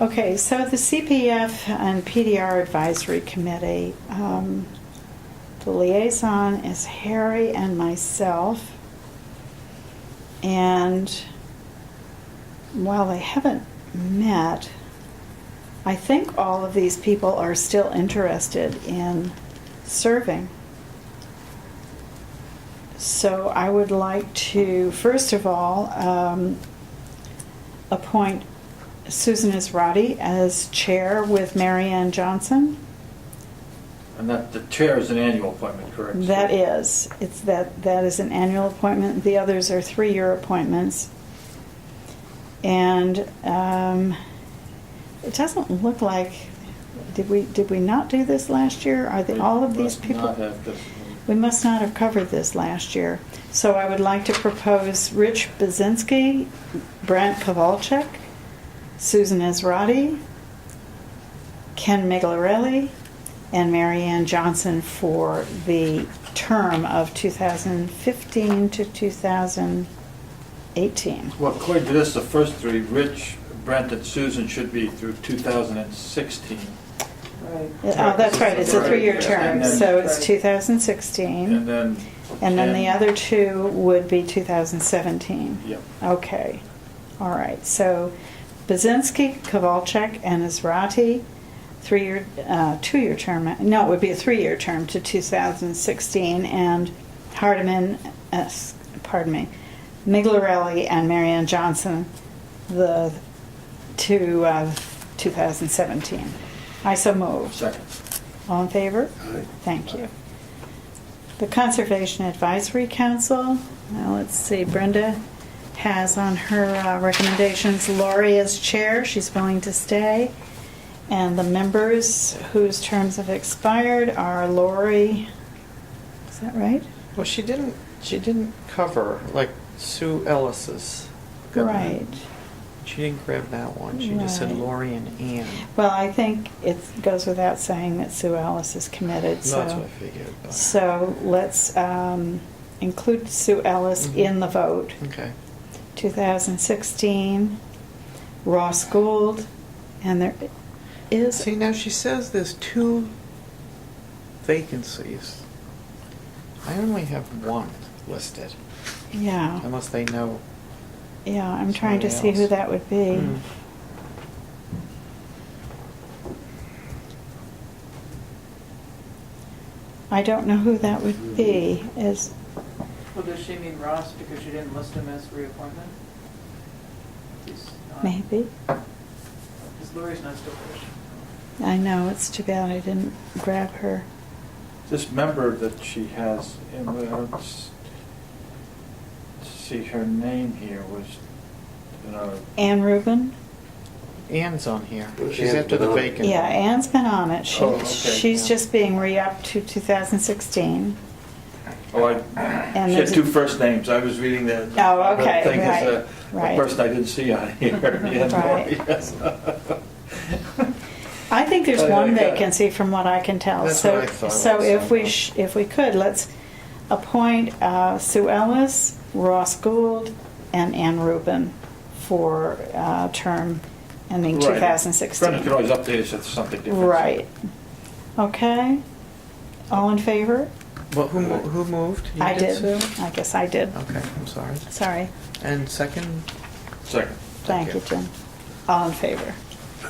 Okay, so the CPF and PDR Advisory Committee, um, the liaison is Harry and myself. And while they haven't met, I think all of these people are still interested in serving. So I would like to, first of all, um, appoint Susan Israti as chair with Marianne Johnson. And that, the chair is an annual appointment, correct? That is, it's that, that is an annual appointment. The others are three-year appointments. And um, it doesn't look like, did we, did we not do this last year? Are they, all of these Must people? not have this- We must not have covered this last year. So I would like to propose Rich Bazinski, Brent Pavalchek, Susan Israti, Ken Miglarelli, and Marianne Johnson for the term of 2015 to 2018. Well, according to this, the first three, Rich, Brent, and Susan should be through 2016. Right. Oh, that's right, it's a three-year Right. term, And then- so it's And 2016. then. And then the Ken- other two would be 2017. Yep. Okay, all right, so Bazinski, Kovalchek, and Israti, three-year, uh, two-year term, no, it would be a three-year term to 2016, and Hardiman, uh, s- pardon me, Miglarelli and Marianne Johnson, the two of 2017. I so move. Oh, Second. All in favor? Aye. Thank you. The Conservation Advisory Council, now let's see, Brenda has on her uh, recommendations Lori as chair, she's willing to stay. And the members whose terms have expired are Lori, is that right? Well, she didn't, she didn't cover, like Sue Ellis's. Right. She didn't grab that one. She just said Right. Lori and Ann. Well, I think it goes without saying that Sue Ellis is committed, so. That's what I figured. but- So let's um, include Sue Ellis Mhm. in the vote. Okay. 2016, Ross Gould, and there is, See, now she says there's two vacancies. I only have one listed, yeah, unless they know. yeah, I'm trying to see Somebody who else. that would be. Mm. I don't know who that would be, is, Well, does she mean Ross because you didn't list him as reappointment? He's not- maybe? Because Lori's not still there. I know, it's too bad I didn't grab her. This member that she has, in the- let's see, her name here was, uh, Ann Rubin? Ann's on here. Well, She's Ann's after been the on. vacant. Yeah, Ann's been on it, Oh, she, okay. she's just being re-upped to 2016. oh, I, And she had there's- two first names. I was reading the. Oh, okay, the thing is, uh, right, right. The person I didn't see on here. Yeah, Lori, yes. I think there's Oh, one okay. vacancy from what I can tell. That's So, what I thought so also. if we, sh- if we could, let's appoint uh, Sue Ellis, Ross Gould, and Ann Rubin for uh, term ending Right. Brendan can 2016. always update us if something different. Right. Okay. All in favor? Well, who, mo- who moved? You I did. Sue? I guess I did. Okay, I'm sorry. Sorry. And second? Second. Thank Thank you, you. Jim. All in favor?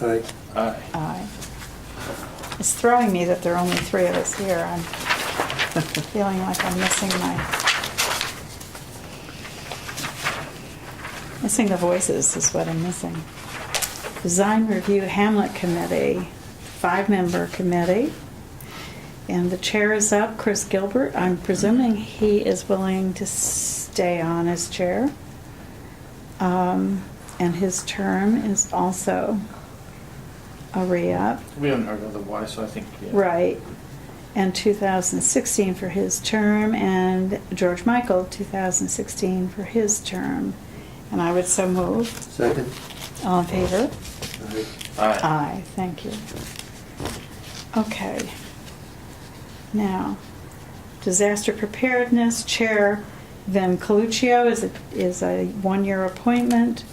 Aye. Aye. Aye. It's throwing me that there are only three of us here. I'm feeling like I'm missing my, missing the voices is what I'm missing. Design Review Hamlet Committee, five-member committee. And the chair is up, Chris Gilbert. I'm presuming he is willing to stay on as chair. Um, And his term is also a re-up. We haven't heard otherwise, so I think. yeah. Right. And 2016 for his term, and George Michael, 2016 for his term. And I would so move. Second? All in favor? Aye. Aye. Aye, thank you. Okay. Now, disaster preparedness, Chair Vin Coluccio is a, is a one-year appointment.